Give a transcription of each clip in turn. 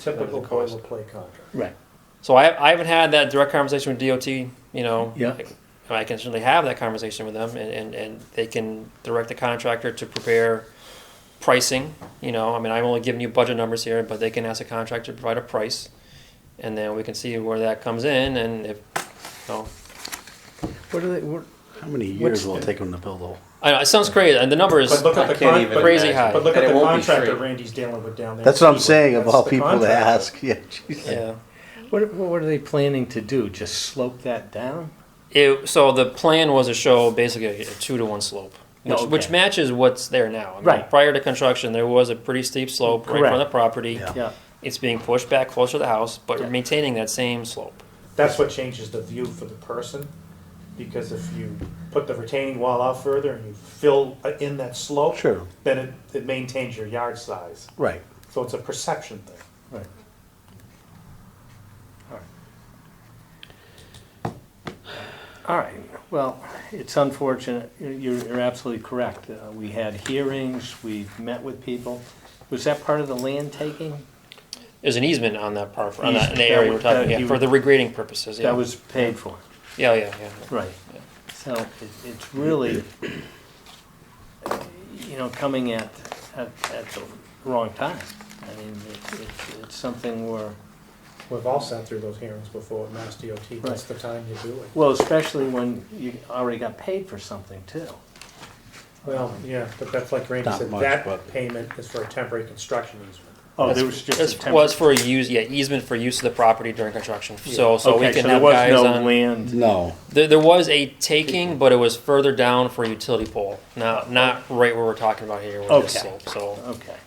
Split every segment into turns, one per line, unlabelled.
Typical boilerplate contract.
Right.
So I, I haven't had that direct conversation with DOT, you know.
Yeah.
And I can certainly have that conversation with them and, and, and they can direct the contractor to prepare pricing, you know, I mean, I'm only giving you budget numbers here, but they can ask the contractor to provide a price. And then we can see where that comes in and if, you know,
What are they, what, how many
What's
years will it
the-
take them to build all?
I know, it sounds crazy and the number is,
But look at
I
the
can't
con-
even
but-
Crazy
imagine.
high.
But look
And
at
it
the
won't be
contract that
free.
Randy's dealing with down there.
That's what I'm saying of
That's
all
the
people to
contract.
ask, yeah, geez.
yeah.
What, what are they planning to do? Just slope that down?
It, so the plan was to show basically a, two to one slope, which,
Oh, Okay.
which matches what's there now. I mean,
Right.
Prior to construction, there was a pretty steep slope right in front of the
Correct.
property.
Yeah.
Yeah.
It's being pushed back closer to the house, but
Yeah.
maintaining that same slope.
That's what changes the view for the person, because if you put the retaining wall out further and you fill uh, in that slope.
Sure.
Then it, it maintains your yard size,
Right.
so it's a perception thing.
Right. All right, well, it's unfortunate, You're- you're, you're absolutely correct. Uh, We had hearings, we've met with people. Was that part of the land taking?
There's an easement on that part, on that, in the
Easement,
area we're
that
talking, yeah,
you-
for the regrading purposes, yeah.
That was paid for?
Yeah, yeah, yeah.
Right. So it- it's really, you know, coming at, at, at the wrong time. I mean, it- it's, it's something where,
We've all sat through those hearings before at Mass DOT, that's
Right.
the time you do it.
well, especially when you already got paid for something too.
Well, yeah, but that's like Randy
Not
said,
much,
that
but-
payment is for a temporary construction easement.
Oh,
That's-
there was just a
This
temporary.
was for a use, yeah, easement for use of the property during construction, so, so we
Okay,
can
there
have
was
guys
no
on.
Land,
No,
There, there was a taking, but it was further down for a utility pole, not, not right where we're talking about here with this
Okay.
slope, so.
okay.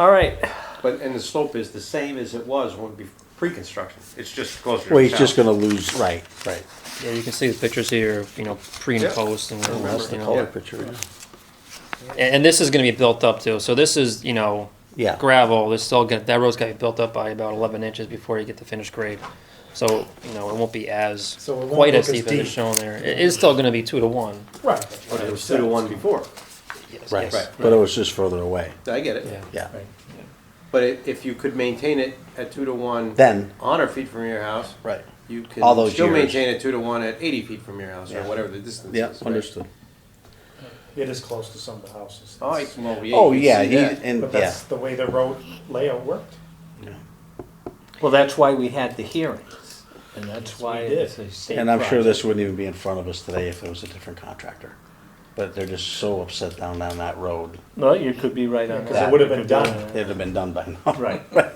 All right,
But, and the slope is the same as it was when be, pre-construction, it's just closer to the
well, he's just
south.
gonna lose, right, right.
Yeah, you can see the pictures here, you know, pre and
Yeah.
post, and,
Well, That's the
you know.
color
Yeah.
picture, yeah.
and and this is going to be built up too. So this is you know
yeah.
gravel. This still got that road's got to be built up by about 11 inches before you get the finished grade. So you know it won't be as
So it won't
quite as
look as
deep as it's
deep.
shown there. It is still going to be two to one.
Right.
But it was two to one before,
Yes,
Right,
yes.
but it was just further away,
I get it,
Yeah.
yeah.
Right.
but i- if you could maintain it at two to one.
Then-
On or feet from your house.
Right.
You
All
can
those
still
years.
maintain it two to one at eighty feet from your house, or
Yeah.
whatever the distance is.
Yeah,
right?
understood.
It is close to some of the houses.
Oh, I- well, yeah.
Oh,
you can
yeah,
see
he,
that.
and,
But
yeah,
that's the way the road layout worked.
well, that's why we had the hearings, and that's why
did.
it's a state.
and I'm sure
project.
this wouldn't even be in front of us today if it was a different contractor. But they're just so upset down down that road,
Well, you could be right on that.
Because it would have been done.
it'd have been done by now.
Right.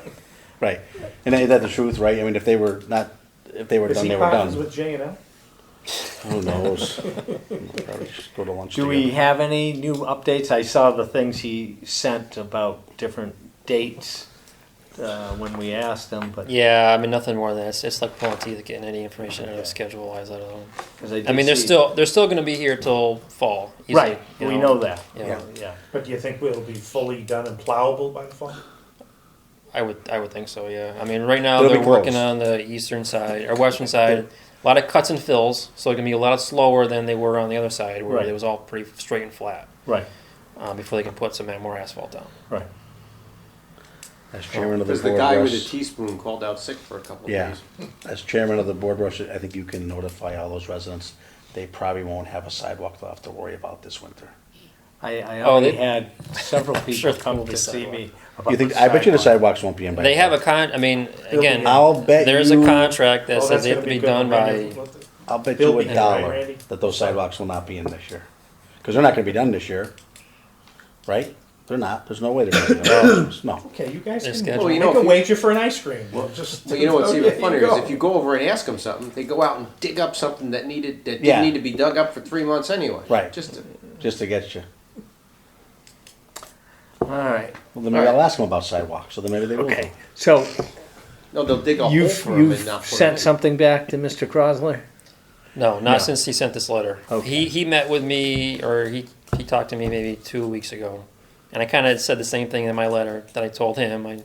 Right, and ain't that the truth, right? I mean, if they were not, if they were
Is
done,
he
they were
partners
done.
with J and L?
Who knows? Probably just Go to lunch
Do we
together.
have any new updates? I saw the things he sent about different dates uh, when we asked him, but.
Yeah, I mean nothing more than that. It's, it's like pulling teeth getting any information out of schedule wise out of them.
'cause did
I mean they're
see-
still they're still going to be here till fall. easily,
Right,
you
we know that.
Yeah.
Yeah.
But do you think we'll be fully done and plowable by the fall?
I would I would think so. Yeah. I mean, right now
It'll be
they're working
close.
on the eastern side or western side. A lot of cuts and fills, so it can be a lot slower than they were on the other side, where
Right.
it was all pretty straight and flat
Right,
uh, before they can put some more asphalt down.
right.
As chairman of the
Cause the
board,
guy with the
Russ,
teaspoon called out sick for a couple of
yeah,
days.
as chairman of the board, Russ, I think you can notify all those residents. They probably won't have a sidewalk they'll have to worry about this winter.
I, I
Oh,
already
they-
had several
Sure,
people come
we'll
to see
decide
me.
You
about
think, I bet you the
sidewalk.
sidewalks won't be in by.
They have a con. I mean, again,
I'll bet
there's a
you-
contract that
Oh,
says
that's
they have
gonna
to be
good.
done by.
Randy, what the-
I'll bet
They'll be
you a
in, right,
dollar
Randy?
that those sidewalks will not be in this year. Because they're not gonna be done this year, right? They're not, there's no way they're gonna be done, no.
Okay, you guys
Their
can,
schedule. Well,
you
you know,
can
if you-
wait you for an ice cream. Just-
But you know what's even
There
funnier is
go.
if you go over and ask them something, they go out and dig up something that needed that didn't
Yeah.
need to be dug up for three months anyway.
Right.
Just to,
Just to get you.
All right,
Well, then maybe I'll ask them about sidewalks, so then maybe they will.
okay, so
no, they'll dig a hole
you've,
for 'em and
you've
not put 'em in.
sent something back to Mr. Crosler?
No, not
No.
since he sent this letter.
Okay.
He he met with me, or he he talked to me maybe two weeks ago, and I kind of said the same thing in my letter that I told him. I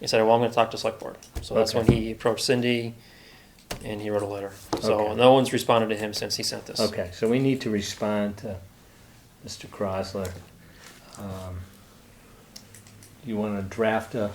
he said, "Well, I'm going to talk to select board." So that's when
Okay.
he approached Cindy, and he wrote a letter. So
Okay.
no one's responded to him since he sent this.
Okay, so we need to respond to Mr. Crosler. Um, you want to draft a